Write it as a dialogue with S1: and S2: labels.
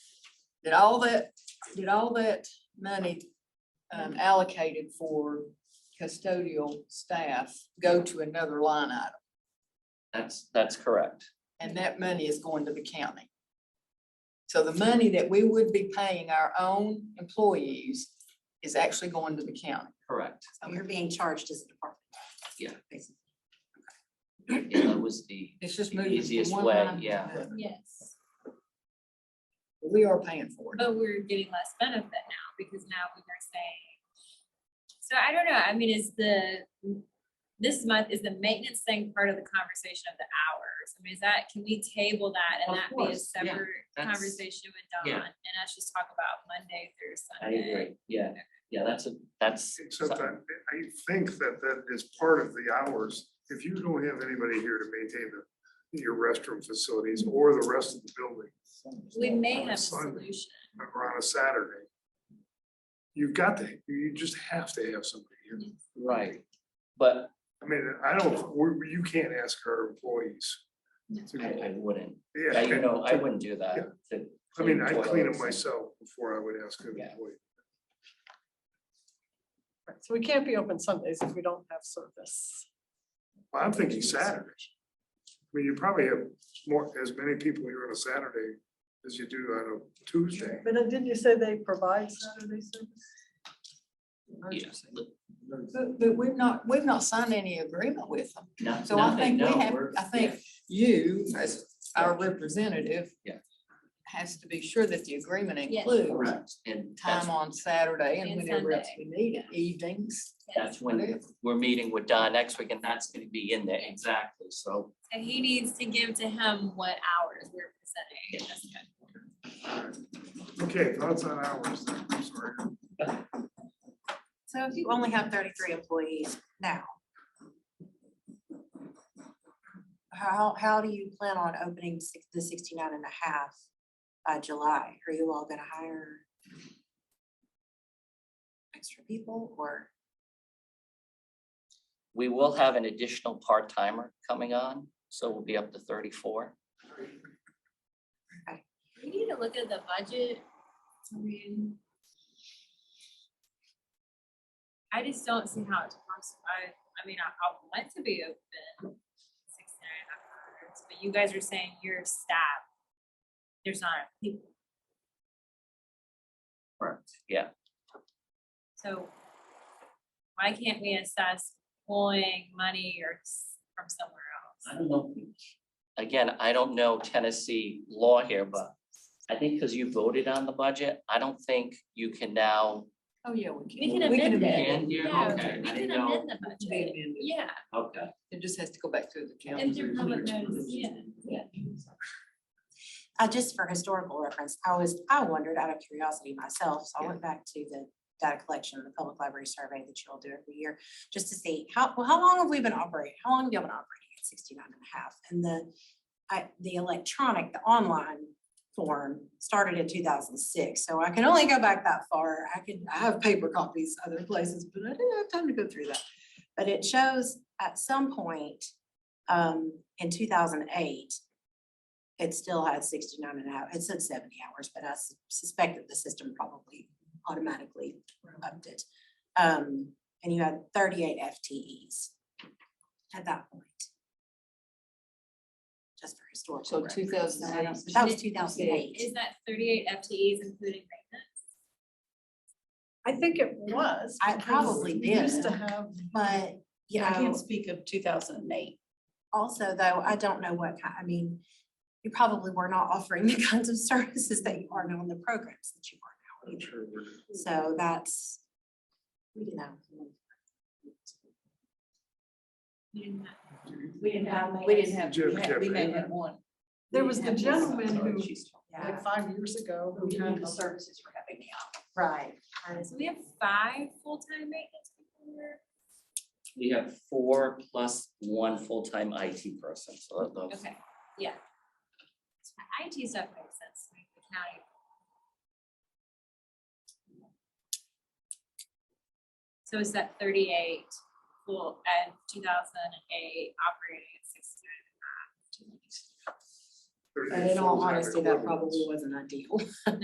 S1: Did all that, did all that money um, allocated for custodial staff go to another line item?
S2: That's, that's correct.
S1: And that money is going to the county. So the money that we would be paying our own employees is actually going to the county.
S2: Correct.
S3: So you're being charged as a department.
S2: Yeah.
S3: Basically.
S2: Yeah, that was the,
S1: It's just
S2: The
S1: moving
S2: easiest
S1: from one
S2: way,
S1: line to
S2: yeah.
S1: another.
S4: Yes,
S1: We are paying for it.
S4: but we're getting less benefit now because now we are saying. So I don't know, I mean, is the, this month, is the maintenance thing part of the conversation of the hours? I mean, is that, can we table that and
S2: Of
S4: that be a
S2: course, yeah,
S4: separate
S2: that's-
S4: conversation with
S2: yeah.
S4: Don? And us just talk about Monday through
S2: I
S4: Sunday.
S2: agree, yeah, yeah, that's a, that's.
S5: Except I, I think that that is part of the hours. If you don't have anybody here to maintain the, your restroom facilities or the rest of the building
S4: We may
S5: On a
S4: have a
S5: Sunday.
S4: solution.
S5: or on a Saturday, you've got to, you just have to have somebody here.
S2: Right, but
S5: I mean, I don't, we, you can't ask our employees. to
S2: I, I wouldn't,
S5: Yeah,
S2: I, you know, I
S5: to-
S2: wouldn't do that. to
S5: I mean, I clean them
S2: toilets.
S5: myself before I would ask an
S2: Yeah.
S5: employee.
S6: Right, So we can't be open Sundays if we don't have service.
S5: Well, I'm thinking Saturday. I mean, you probably have more, as many people here on a Saturday as you do on a Tuesday.
S6: But then didn't you say they provide Saturday service?
S2: Yeah,
S1: But, but we've not, we've not signed any agreement with them.
S2: no-
S1: So I
S2: nothing,
S1: think we
S2: no,
S1: have,
S2: we're-
S1: I think
S2: yeah.
S1: you, as our representative.
S2: Yeah.
S1: Has to be sure that the agreement
S4: Yes.
S1: includes
S2: Correct, and that's,
S1: time on Saturday and
S4: And
S1: whenever else we
S4: Sunday.
S1: need it, evenings.
S2: that's when we're meeting with Don next week, and that's gonna be in there, exactly, so.
S4: And he needs to give to him what hours we're presenting. That's good.
S5: Okay, thoughts on hours, then, I'm sorry.
S3: So if you only have thirty-three employees now, how, how do you plan on opening six, the 69 and a half by July? Are you all gonna hire extra people or?
S2: We will have an additional part-timer coming on, so we'll be up to thirty-four.
S4: We need to look at the budget. I mean. I just don't see how it's possible. I, I mean, I, I want to be open six and a half hours, but you guys are saying your staff. There's not enough people,
S2: Yeah,
S4: so. Why can't we assess pulling money or s- from somewhere
S2: I
S4: else?
S2: don't know. Again, I don't know Tennessee law here, but I think because you voted on the budget, I don't think you can now.
S1: Oh, yeah, we
S4: We can amend it.
S2: amend it.
S4: Yeah,
S2: Okay, I
S4: We
S2: didn't
S4: can
S2: know.
S4: amend the budget, yeah,
S2: Okay.
S1: It just has to go back to the
S4: and
S1: county.
S4: through public notice, yeah, yeah.
S3: Uh, just for historical reference, I was, I wondered out of curiosity myself, so I went back to the data collection, the public library survey that you all do every year, just to see how, well, how long have we been operating? How long have y'all been operating at 69 and a half? And the, I, the electronic, the online form started in two thousand six, so I can only go back that far. I can, I have paper copies other places, but I didn't have time to go through that. But it shows at some point, um, in two thousand eight, it still had 69 and a half, it said seventy hours, but I sus- suspect that the system probably automatically upped it. Um, and you had thirty-eight FTEs at that point. Just for historical.
S1: So
S3: reference.
S1: 2008.
S3: That was two thousand eight.
S4: Is that thirty-eight FTEs including maintenance?
S6: I think it was.
S3: I
S6: because
S3: probably
S6: we Used
S3: did.
S6: to have,
S3: But, you
S6: I
S3: know,
S6: can't speak of two thousand and eight.
S3: also though, I don't know what, kind. I mean, you probably were not offering the kinds of services that you are now in the programs that you are now.
S5: I'm
S3: either.
S5: sure we're-
S3: So that's, you know.
S4: We didn't have-
S7: We didn't have, we didn't have,
S5: Jim
S7: we had- we may
S5: Kevin.
S7: have one.
S6: There was the gentleman who,
S3: Yeah,
S6: like five years ago,
S7: We
S6: who had
S7: the services for having now.
S3: right.
S4: So we have five full-time maintenance people here.
S2: We have four plus one full-time IT person, so that- those-
S4: Okay, yeah. So the IT stuff makes sense, like the county. So is that thirty-eight, well, and two thousand and eight operating at sixty-nine and a half?
S5: thirty
S3: But in all
S5: full-time
S3: honesty, that
S5: equivalents.
S3: probably wasn't ideal.